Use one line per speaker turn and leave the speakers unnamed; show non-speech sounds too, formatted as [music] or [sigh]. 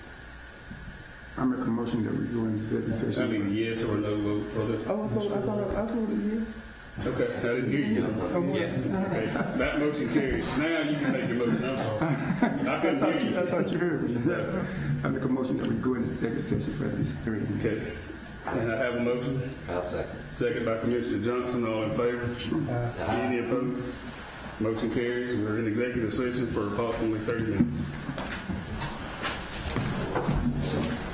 I make a motion that we go into executive
I mean,
session.
yes or no vote for this?
Oh, I thought, I thought, I voted you.
Okay, I didn't hear you.
Oh,
Okay, that motion carries. Now you can make your motion, I'm sorry. I
I
couldn't
thought you, [laughs]
hear
I
you.
thought you heard me.
No.
I make a motion that we go into executive session for this hearing.
Okay, and I have a motion,
I'll second.
second by Commissioner Johnson, all in favor? Any opposed? Motion carries, we're in executive session for approximately thirty minutes.